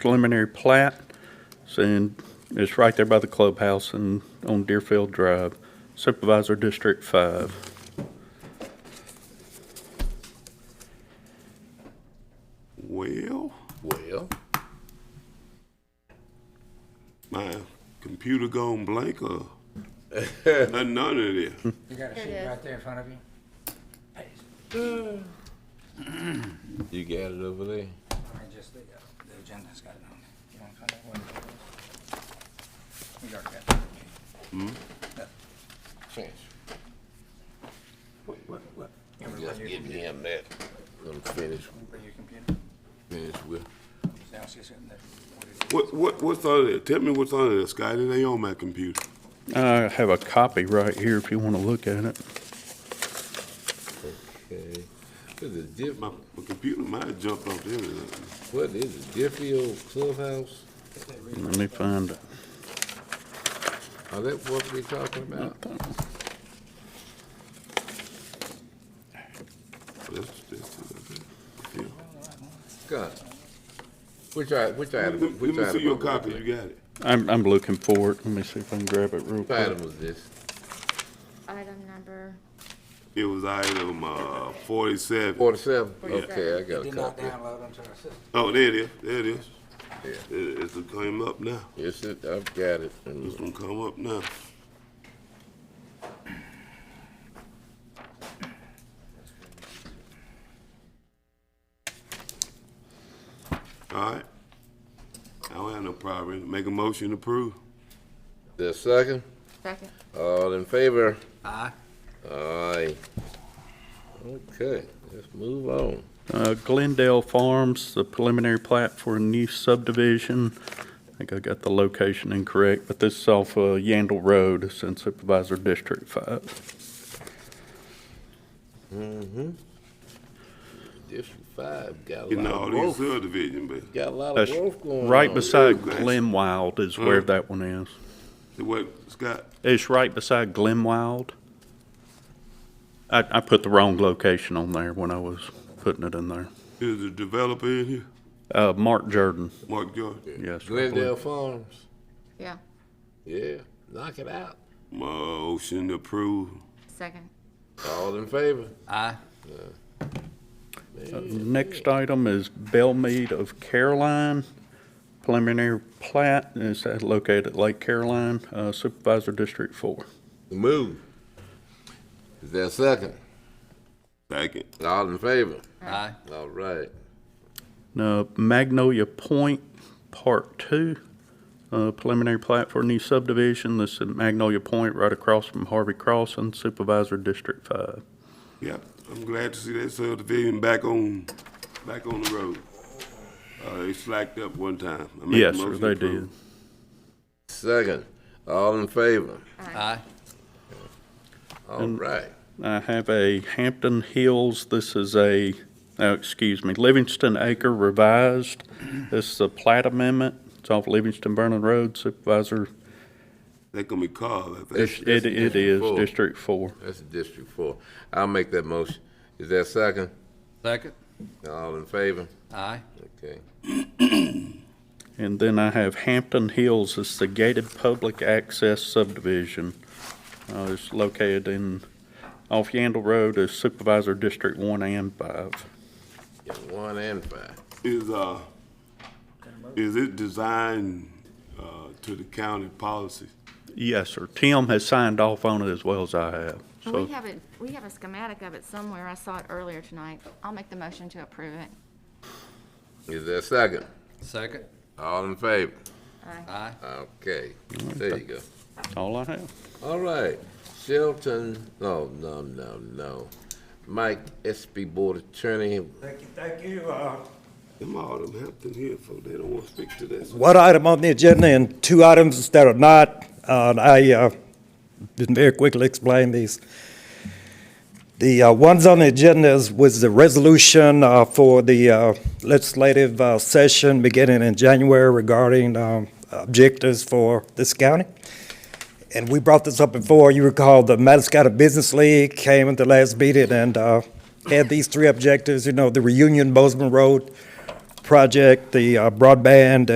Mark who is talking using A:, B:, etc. A: preliminary plat. And it's right there by the clubhouse and on Deerfield Drive, Supervisor District Five.
B: Well,
C: Well,
B: my computer gone blank or none of this.
D: You got a sheet right there in front of you?
C: you got it over there.
D: I just, the, uh, the agenda's got it on it. You wanna find out what it is? We already got it.
C: Hmm? Finish.
D: What, what? You wanna
C: Just
D: bring your
C: give
D: computer?
C: him that. Let him finish,
D: Bring your computer.
C: finish with.
D: Downstairs in there. What it is.
B: What, what, what's under there? Tell me what's under there, Scotty. They on my computer.
A: I have a copy right here if you want to look at it.
C: Okay. What is it, Diff,
B: My, my computer might have jumped off the internet.
C: what is it, Difffield Clubhouse?
A: Let me find it.
C: Are that what we talking about?
B: That's, that's, that's, yeah.
C: God. Which I, which
B: Let
C: item,
B: me
C: which item?
B: let me see your
C: are we
B: copy.
C: looking
B: You got it.
A: I'm, I'm looking for it. Let me see if I can grab it real
C: at? What
A: quick.
C: item was this?
E: Item number,
B: It was item, uh, forty-seven.
C: Forty-seven?
E: Forty-seven.
C: Okay, I
D: It
C: got a
D: did not
C: copy.
D: download onto our system.
B: Oh, there it is. There it is.
C: Yeah.
B: It, it's gonna come up now.
C: Yes, it, I've got it.
B: It's gonna come up now. All right. I don't have no problem. Make a motion to approve.
C: The second,
E: second.
C: all in favor? Aye. Okay, let's move on.
A: Uh, Glendale Farms, the preliminary plat for a new subdivision. I think I got the location incorrect, but this is off, uh, Yandle Road, it's in Supervisor District Five.
C: District five got a
B: Getting
C: lot
B: all
C: of
B: these
C: growth.
B: subdivision, but
C: Got a lot of
A: That's
C: growth going on.
A: right beside
B: Nice.
A: Glenwild is where
B: Mm.
A: that one is.
B: it wasn't, Scott,
A: It's right beside Glenwild. I, I put the wrong location on there when I was putting it in there.
B: is the developer in here?
A: Uh, Mark Jordan,
B: Mark Jordan?
A: yes. I believe.
C: Glendale Farms.
E: Yeah,
C: Yeah, knock it out.
B: Motion to approve.
E: second.
C: All in favor?
A: Next item is Bellmead of Caroline, preliminary plat, and it's located at Lake Caroline, uh, Supervisor District Four.
C: Move. Is there a second?
B: Second.
C: All in favor? Aye. All right.
A: Now Magnolia Point, Part Two, uh, preliminary plat for a new subdivision, this is Magnolia Point, right across from Harvey Crossing, Supervisor District Five.
B: Yep, I'm glad to see that subdivision back on, back on the road. Uh, they slacked up one time. I make a
A: Yes, sir,
B: motion
A: they
B: to
A: did.
B: approve.
C: Second, all in favor?
D: Aye.
C: All right.
A: I have a Hampton Hills, this is a, oh, excuse me, Livingston Acre revised. This is a plat amendment, it's off Livingston Vernon Road, Supervisor,
B: They gonna be called, I think.
A: it, it is
C: Four.
A: District Four.
C: That's District Four. I'll make that motion. Is there a second?
F: Second.
C: All in favor?
F: Aye.
C: Okay.
A: And then I have Hampton Hills, it's the gated public access subdivision. Uh, it's located in, off Yandle Road, is Supervisor District One and Five.
C: Got one and five.
B: Is, uh, is it designed, uh, to the county policy?
A: Yes, sir, Tim has signed off on it as well as I have,
E: And Oh,
A: so,
E: we have it, we have a schematic of it somewhere. I saw it earlier tonight. I'll make the motion to approve it.
C: Is there a second?
F: Second.
C: All in favor?
F: Aye.
C: Okay, there you go.
A: all I have.
C: All right, Shelton, no, no, no, no. Mike, SB Board Attorney,
G: Thank you, thank you. Uh,
B: Them all them Hampton Hill folk, they don't wanna speak to this.
G: One item on the agenda and two items that are not, uh, and I uh, didn't very quickly explain these. The uh, ones on the agenda is- was the resolution uh, for the uh, legislative uh, session beginning in January regarding um, objectives for this county. And we brought this up before, you recall, the Madagascar Business League came at the last meeting and uh, had these three objectives, you know, the reunion Bozeman Road project, the uh, broadband,